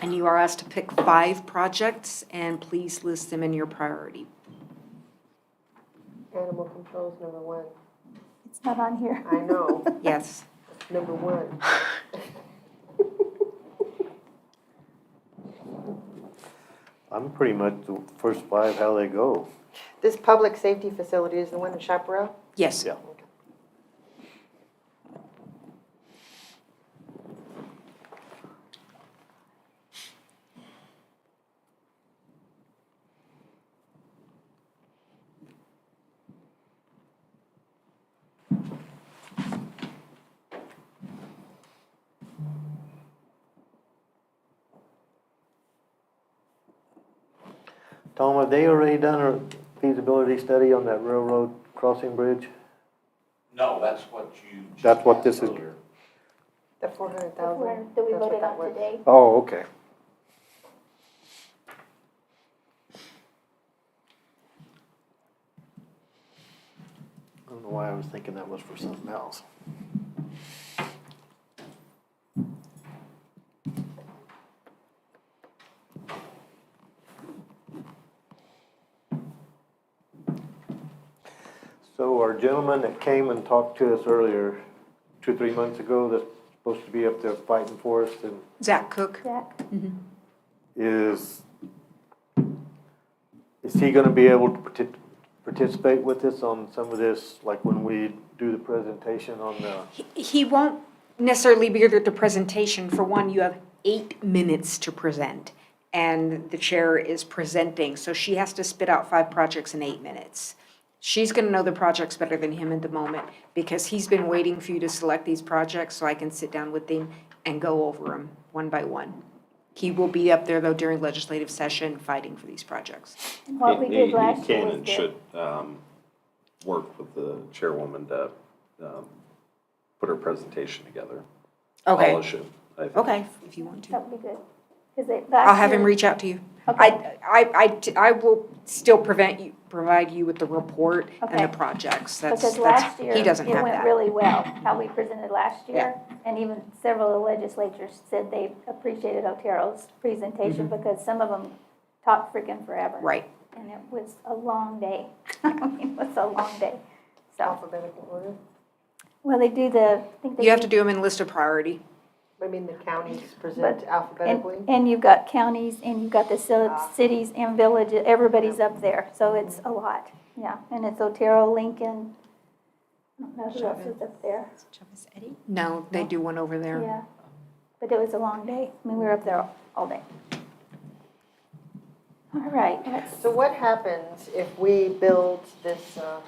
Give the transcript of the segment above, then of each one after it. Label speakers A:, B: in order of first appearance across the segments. A: and you are asked to pick five projects, and please list them in your priority.
B: Animal control's number one.
C: It's not on here.
B: I know,
A: Yes.
B: number one.
D: I'm pretty much the first five, how they go.
B: This public safety facility is the one in Chaparral?
A: Yes.
D: Yeah. Tom, have they already done a feasibility study on that railroad crossing bridge?
E: No, that's what you. just
D: That's what this
E: asked
D: is-
E: earlier.
B: The four hundred
C: Where-
B: thousand?
C: That we voted on today.
D: Oh, okay. I don't know why I was thinking that was for something else. So our gentleman that came and talked to us earlier, two, three months ago, that's supposed to be up there fighting for us and
A: Zach Cook?
C: Jack,
D: is, is he gonna be able to partic- participate with us on some of this, like when we do the presentation on the,
A: He- He won't necessarily be here at the presentation. For one, you have eight minutes to present, and the chair is presenting, so she has to spit out five projects in eight minutes. She's gonna know the projects better than him at the moment, because he's been waiting for you to select these projects, so I can sit down with him and go over them one by one. He will be up there, though, during legislative session, fighting for these projects.
C: and what we
F: He-
C: did
F: he-
C: last
F: He
C: year
F: can
C: was
F: and
C: good.
F: should um, work with the chairwoman to um, put her presentation together. Paula should, I think.
A: Okay, if you want to.
C: That would be good. 'Cause they-
A: I'll
C: last
A: have him
C: year-
A: reach out to you. I,
C: Okay.
A: I, I t- I will still prevent you, provide you with the report and the
C: Okay.
A: projects. That's,
C: Because
A: that's,
C: last year,
A: he doesn't
C: it
A: have
C: went
A: that.
C: really well, how we presented last year. And even several of the legislatures said they appreciated Otero's presentation because some of them talked freaking forever.
A: Mm-hmm. Right.
C: And it was a long day. I mean, it was a long day. So,
B: Alphabetical order?
C: well, they do the, I think they.
A: You have to do them in list of priority.
B: I mean, the counties present
C: And,
B: alphabetically?
C: and you've got counties and you've got the
B: Ah.
C: ci- cities and villages, everybody's up there, so it's a lot, yeah. And it's Otero, Lincoln, I don't know who else is up there,
A: No, they do one over there.
C: yeah. But it was a long day, I mean, we were up there all day. All right, let's-
B: So what happens if we build this, uh,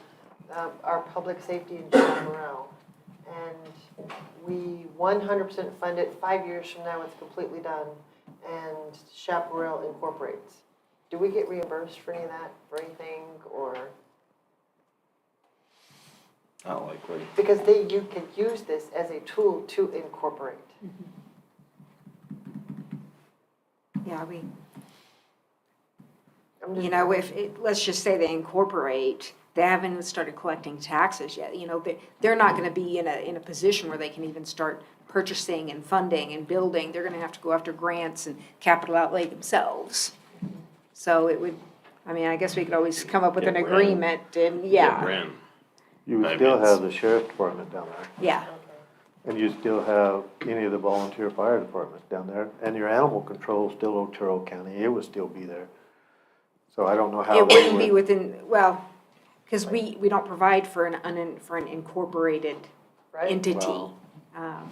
B: um, our public safety in Chaparral? And we one hundred percent fund it, five years from now, it's completely done, and Chaparral incorporates. Do we get reimbursed for any of that, for anything, or?
F: Not likely.
B: Because they, you could use this as a tool to incorporate.
A: Yeah, we,
B: I'm just-
A: you know, if, it- let's just say they incorporate, they haven't even started collecting taxes yet. You know, they, they're not gonna be in a, in a position where they can even start purchasing and funding and building. They're gonna have to go after grants and capital outlay themselves. So it would, I mean, I guess we could always come up with an
F: Yeah, we're in.
A: agreement and, yeah,
F: Ran.
D: you would
F: I
D: still
F: mean,
D: have the sheriff's department down there.
A: yeah.
D: And you still have any of the volunteer fire departments down there, and your animal control is still Otero County, it would still be there. So I don't know how.
A: It
D: we
A: wouldn't be
D: would-
A: within, well, because we, we don't provide for an, unin- for an incorporated
B: Right?
A: entity.
D: Well-
A: Um,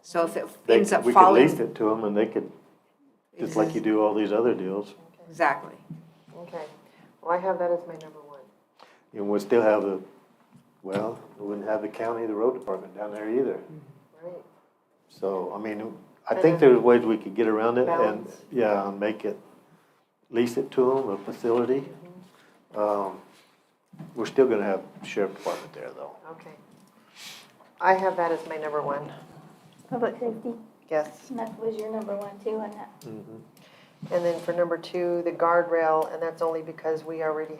A: So if it
D: they-
A: ends up
D: We could
A: falling.
D: lease it to them and they could, just like you do all these other deals,
A: Exactly.
B: Okay, well, I have that as my number one.
D: and we'd still have the, well, we wouldn't have the county, the road department down there either.
B: Right,
D: So, I mean, I think there's ways we could get around it and,
B: Balance.
D: yeah, and make it, lease it to them, a facility. Um, We're still gonna have sheriff department there though.
B: okay. I have that as my number one,
C: public safety,
B: yes.
C: and that was your number one too, and that
B: And then for number two, the guardrail, and that's only because we already